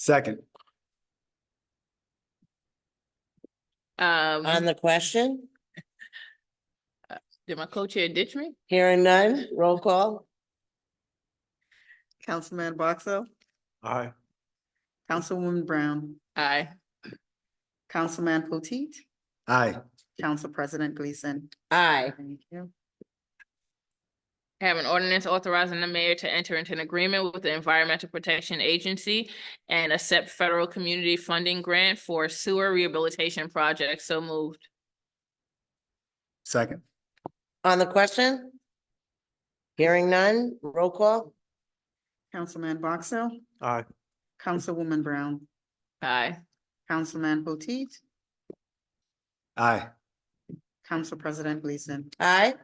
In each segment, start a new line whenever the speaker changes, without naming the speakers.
Second,
Um, Uh,
On the question,
did my co-chair ditch me?
hearing none, roll call,
Councilman Boxell,
aye.
Councilwoman Brown,
Aye.
Councilman Potteet,
Aye.
Council President Gleason.
aye.
Thank you.
I Have an ordinance authorizing the mayor to enter into an agreement with the Environmental Protection Agency and accept federal community funding grant for sewer rehabilitation project. So moved.
Second,
On the question? Hearing none, roll call,
Councilman Boxell,
aye.
Councilwoman Brown,
Aye.
Councilman Potteet,
Aye.
Council President Gleason.
aye.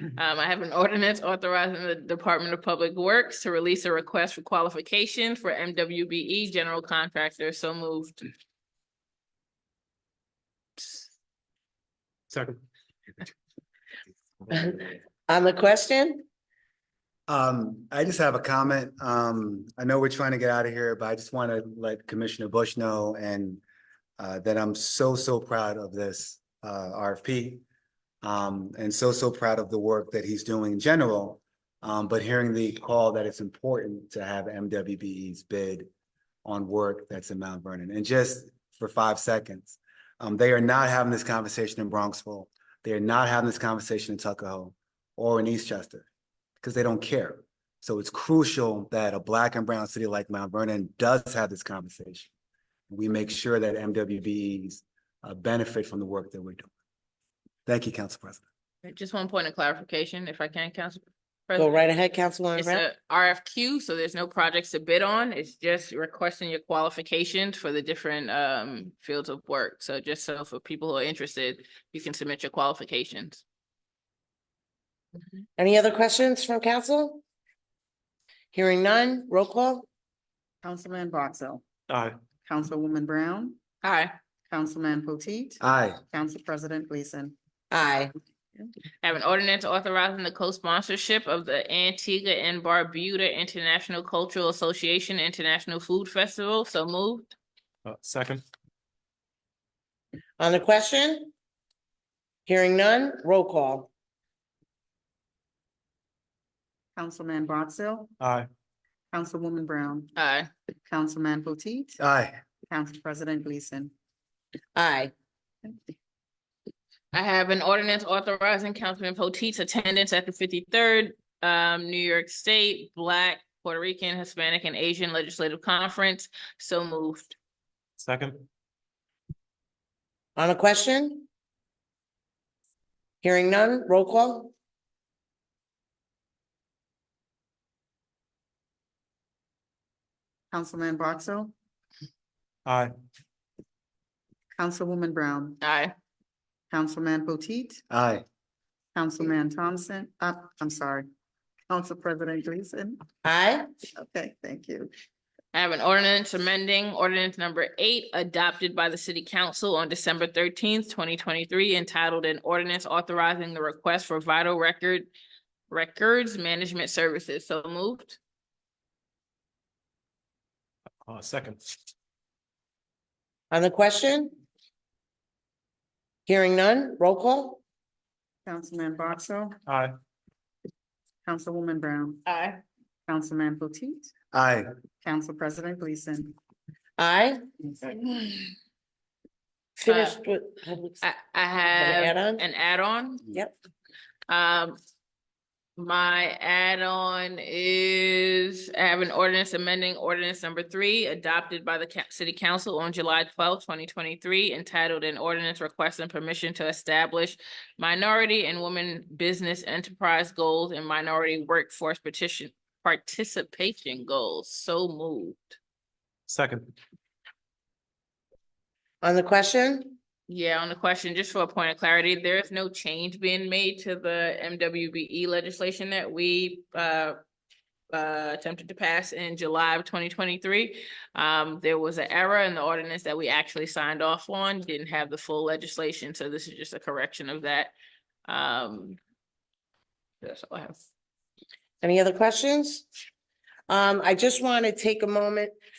Um, I have an ordinance authorizing the Department of Public Works to release a request for qualification for MWBE E general contractor. So moved.
Second.
On the question,
Um, I just have a comment. Um, I know we're trying to get out of here, but I just want to let Commissioner Bush know and uh, that I'm so, so proud of this uh, RFP. Um, and so, so proud of the work that he's doing in general. Um, but hearing the call that it's important to have MWBE's bid on work that's in Mount Vernon. And just for five seconds, um, they are not having this conversation in Bronxville. They are not having this conversation in Tuckahoe or in Eastchester because they don't care. So it's crucial that a black and brown city like Mount Vernon does have this conversation. We make sure that MWBEs uh, benefit from the work that we're doing. Thank you, Council President.
Just one point of clarification, if I can, Council.
go
President.
right ahead, Councilwoman
It's
Brown.
a RFQ, so there's no projects to bid on. It's just requesting your qualifications for the different um fields of work. So just so for people who are interested, you can submit your qualifications.
Any other questions from council? Hearing none, roll call,
Councilman Boxell,
Aye.
Councilwoman Brown,
Hi,
Councilman Potteet,
Aye.
Council President Gleason.
aye.
I have an ordinance authorizing the co-sponsorship of the Antigua and Barbuda International Cultural Association International Food Festival. So moved.
Uh, Second.
On the question? Hearing none, roll call,
Councilman Boxell,
Aye.
Councilwoman Brown,
Aye.
Councilman Potteet,
Aye.
Council President Gleason.
aye.
I have an ordinance authorizing Councilman Potteet's attendance at the fifty-third um New York State Black, Puerto Rican, Hispanic, and Asian Legislative Conference. So moved.
Second.
On the question? Hearing none, roll call,
Councilman Boxell,
Aye.
Councilwoman Brown,
Aye.
Councilman Potteet,
Aye.
Councilman Thompson, uh, I'm sorry, Council President Gleason.
aye.
Okay, thank you.
I have an ordinance amending ordinance number eight adopted by the city council on December thirteenth, twenty twenty-three entitled an ordinance authorizing the request for vital record records management services. So moved.
Uh, second.
On the question? Hearing none, roll call,
Councilman Boxell,
Aye.
Councilwoman Brown,
Aye.
Councilman Potteet,
Aye.
Council President Gleason.
aye. Finished with.
Uh, I, I have
Add on,
an add-on.
yep,
Um, my add-on is, I have an ordinance amending ordinance number three adopted by the ca- city council on July twelfth, twenty twenty-three entitled an ordinance requesting permission to establish minority and women business enterprise goals and minority workforce petition participation goals. So moved.
Second.
on the question,
Yeah, on the question, just for a point of clarity, there is no change being made to the MWBE E legislation that we uh uh attempted to pass in July of twenty twenty-three. Um, there was an error in the ordinance that we actually signed off on, didn't have the full legislation, so this is just a correction of that. Um. That's all I have.
any other questions? Um, I just want to take a moment,